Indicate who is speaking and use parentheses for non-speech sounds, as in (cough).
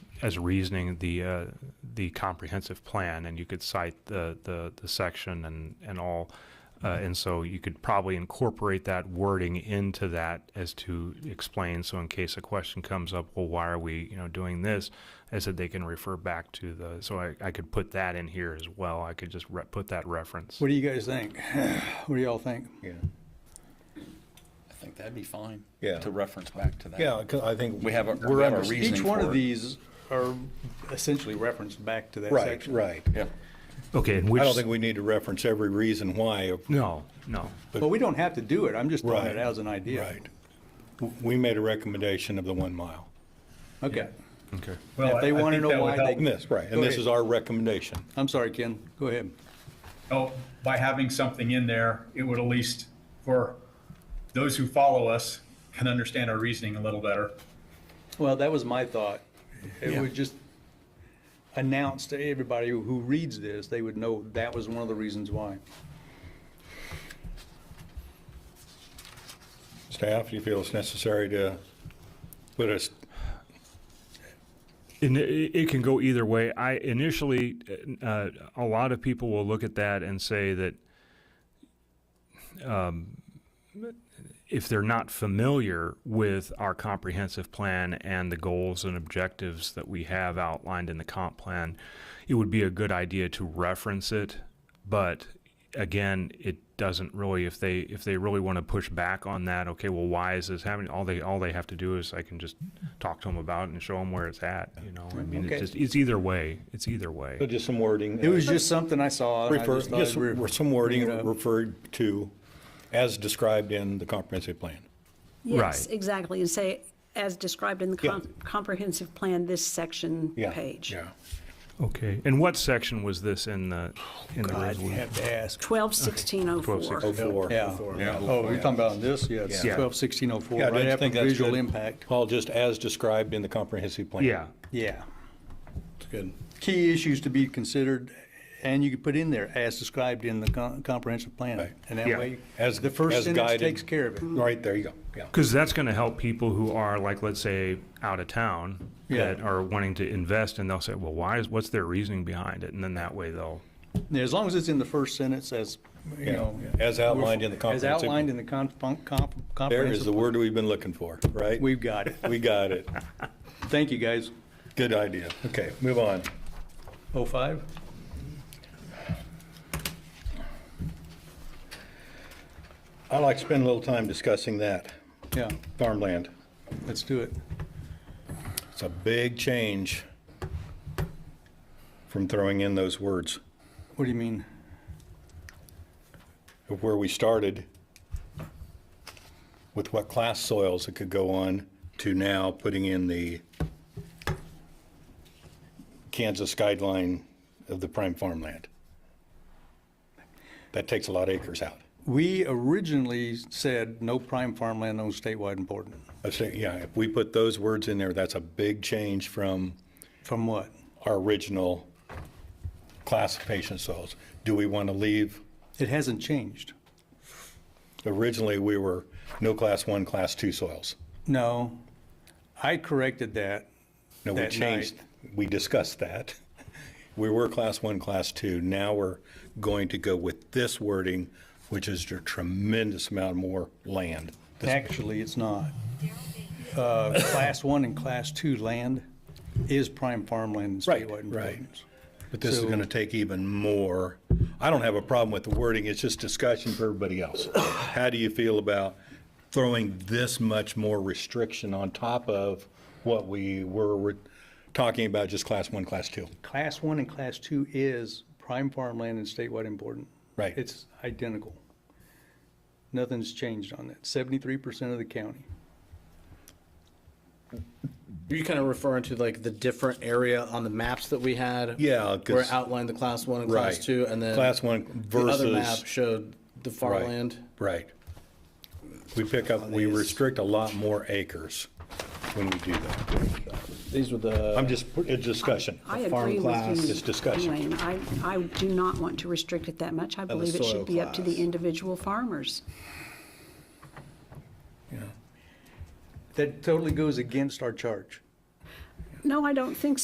Speaker 1: as reasoning the uh, the comprehensive plan, and you could cite the the, the section and and all, uh,
Speaker 2: Mm-hmm.
Speaker 1: and so you could probably incorporate that wording into that as to explain. So in case a question comes up, well, why are we you know doing this? I said they can refer back to the. So I, I could put that in here as well. I could just re- put that reference.
Speaker 3: What do you guys think? (sighs) What do y'all think?
Speaker 2: Yeah,
Speaker 4: I think that'd be fine.
Speaker 2: Yeah.
Speaker 4: To reference back to that.
Speaker 2: yeah, 'cause I think.
Speaker 4: We have a,
Speaker 2: we're
Speaker 4: we have a
Speaker 2: under-
Speaker 4: reasoning
Speaker 3: Each one
Speaker 4: for
Speaker 3: of
Speaker 4: it.
Speaker 3: these are essentially referenced back to that
Speaker 2: Right,
Speaker 3: section.
Speaker 2: right.
Speaker 4: Yeah,
Speaker 1: Okay, and which
Speaker 2: I don't think we need to reference every reason why,
Speaker 1: no no.
Speaker 3: But we don't have to do it. I'm just throwing
Speaker 2: Right,
Speaker 3: it out as an idea.
Speaker 2: right. W- We made a recommendation of the one mile.
Speaker 3: Okay.
Speaker 1: Okay.
Speaker 3: If they want to know why
Speaker 2: And
Speaker 3: they,
Speaker 2: this, right,
Speaker 3: Go
Speaker 2: and this
Speaker 3: ahead.
Speaker 2: is our recommendation.
Speaker 3: I'm sorry, Ken, go ahead.
Speaker 5: So by having something in there, it would at least, for those who follow us, can understand our reasoning a little better.
Speaker 3: Well, that was my thought. It would just announce to everybody who reads this, they would know that was one of the reasons why.
Speaker 2: Staff, do you feel it's necessary to put us,
Speaker 1: And it, it can go either way. I initially, uh, a lot of people will look at that and say that um, if they're not familiar with our comprehensive plan and the goals and objectives that we have outlined in the comp plan, it would be a good idea to reference it. But again, it doesn't really. If they if they really want to push back on that, okay, well, why is this happening? All they all they have to do is I can just talk to them about it and show them where it's at. You know, I mean,
Speaker 3: Okay.
Speaker 1: it's just it's either way. It's either way.
Speaker 2: put just some wording?
Speaker 3: It was just something I saw. and I
Speaker 2: Refer,
Speaker 3: just thought
Speaker 2: just
Speaker 3: I'd re-
Speaker 2: re- some wording
Speaker 3: bring it up.
Speaker 2: referred to as described in the comprehensive plan.
Speaker 6: Yes,
Speaker 1: Right.
Speaker 6: exactly, and say, as described in the
Speaker 2: Yeah.
Speaker 6: com- comprehensive plan, this section
Speaker 2: Yeah,
Speaker 6: page.
Speaker 2: Yeah.
Speaker 1: Okay, and what section was this in the, in the
Speaker 3: I'd
Speaker 1: resolution?
Speaker 3: have to ask.
Speaker 6: Twelve sixteen oh four.
Speaker 1: 1216.
Speaker 2: Before.
Speaker 3: Yeah. Oh, you're talking about this? Yeah, it's
Speaker 1: Yeah.
Speaker 3: twelve sixteen oh four,
Speaker 2: Yeah, don't
Speaker 3: right
Speaker 2: you
Speaker 3: after
Speaker 2: think that's
Speaker 3: visual
Speaker 2: good?
Speaker 3: impact.
Speaker 2: Paul, just as described in the comprehensive plan.
Speaker 1: Yeah,
Speaker 3: Yeah.
Speaker 2: It's good.
Speaker 3: Key issues to be considered, and you could put in there, as described in the con- comprehensive plan.
Speaker 2: Right.
Speaker 3: And that
Speaker 1: Yeah.
Speaker 3: way,
Speaker 2: As-
Speaker 3: the first
Speaker 2: as
Speaker 3: sentence
Speaker 2: guided.
Speaker 3: takes care of it.
Speaker 2: Right, there you go, yeah.
Speaker 1: because that's going to help people who are like, let's say, out of town
Speaker 3: Yeah.
Speaker 1: that are wanting to invest, and they'll say, well, why is, what's their reasoning behind it? And then that way they'll,
Speaker 3: Yeah, As long as it's in the first sentence, as, you
Speaker 2: Yeah,
Speaker 3: know.
Speaker 2: yeah. As outlined in the comprehensive-
Speaker 3: As outlined in the con- con- con-
Speaker 2: There is the
Speaker 3: comprehensive,
Speaker 2: word we've been looking for, right?
Speaker 3: we've got it.
Speaker 2: We got it.
Speaker 3: Thank you, guys.
Speaker 2: Good idea. Okay, move on.
Speaker 3: Oh, five?
Speaker 2: I'd like to spend a little time discussing that,
Speaker 3: Yeah,
Speaker 2: farmland.
Speaker 3: let's do it.
Speaker 2: It's a big change from throwing in those words
Speaker 3: What do you mean?
Speaker 2: of where we started with what class soils it could go on to now putting in the Kansas guideline of the prime farmland. That takes a lot of acres out.
Speaker 3: We originally said no prime farmland on statewide important.
Speaker 2: I say, yeah, if we put those words in there, that's a big change from
Speaker 3: From what?
Speaker 2: our original classification soils. Do we want to leave,
Speaker 3: It hasn't changed.
Speaker 2: originally, we were no class one, class two soils.
Speaker 3: No, I corrected that.
Speaker 2: No, we
Speaker 3: That
Speaker 2: changed, we discussed that. (laughs) We were class one, class two. Now we're going to go with this wording, which is a tremendous amount more land.
Speaker 3: Actually, it's not. Uh, Class one and class two land is prime farmland and
Speaker 2: Right,
Speaker 3: statewide
Speaker 2: right.
Speaker 3: importance.
Speaker 2: But this is
Speaker 3: So-
Speaker 2: going to take even more. I don't have a problem with the wording, it's just discussion for everybody else. How do you feel about throwing this much more restriction on top of what we were were talking about, just class one, class two?
Speaker 3: Class one and class two is prime farmland and statewide important.
Speaker 2: Right.
Speaker 3: It's identical. Nothing's changed on that. Seventy-three percent of the county.
Speaker 7: Are you kind of referring to like the different area on the maps that we had?
Speaker 2: Yeah, 'cause-
Speaker 7: Where it outlined the class one and class
Speaker 2: Right.
Speaker 7: two, and then.
Speaker 2: Class one
Speaker 7: The
Speaker 2: versus-
Speaker 7: other map showed the
Speaker 2: Right,
Speaker 7: farmland.
Speaker 2: Right. We pick up, we restrict a lot more acres when we do that.
Speaker 7: These were the.
Speaker 2: I'm just, it's discussion.
Speaker 6: I
Speaker 7: farm
Speaker 6: agree
Speaker 7: class
Speaker 6: with you.
Speaker 2: is discussion.
Speaker 6: Wayne. I, I do not want to restrict it that much. I believe it
Speaker 7: soil
Speaker 6: should be up to the
Speaker 7: class.
Speaker 6: individual farmers.
Speaker 3: That totally goes against our charge.
Speaker 6: No, I don't think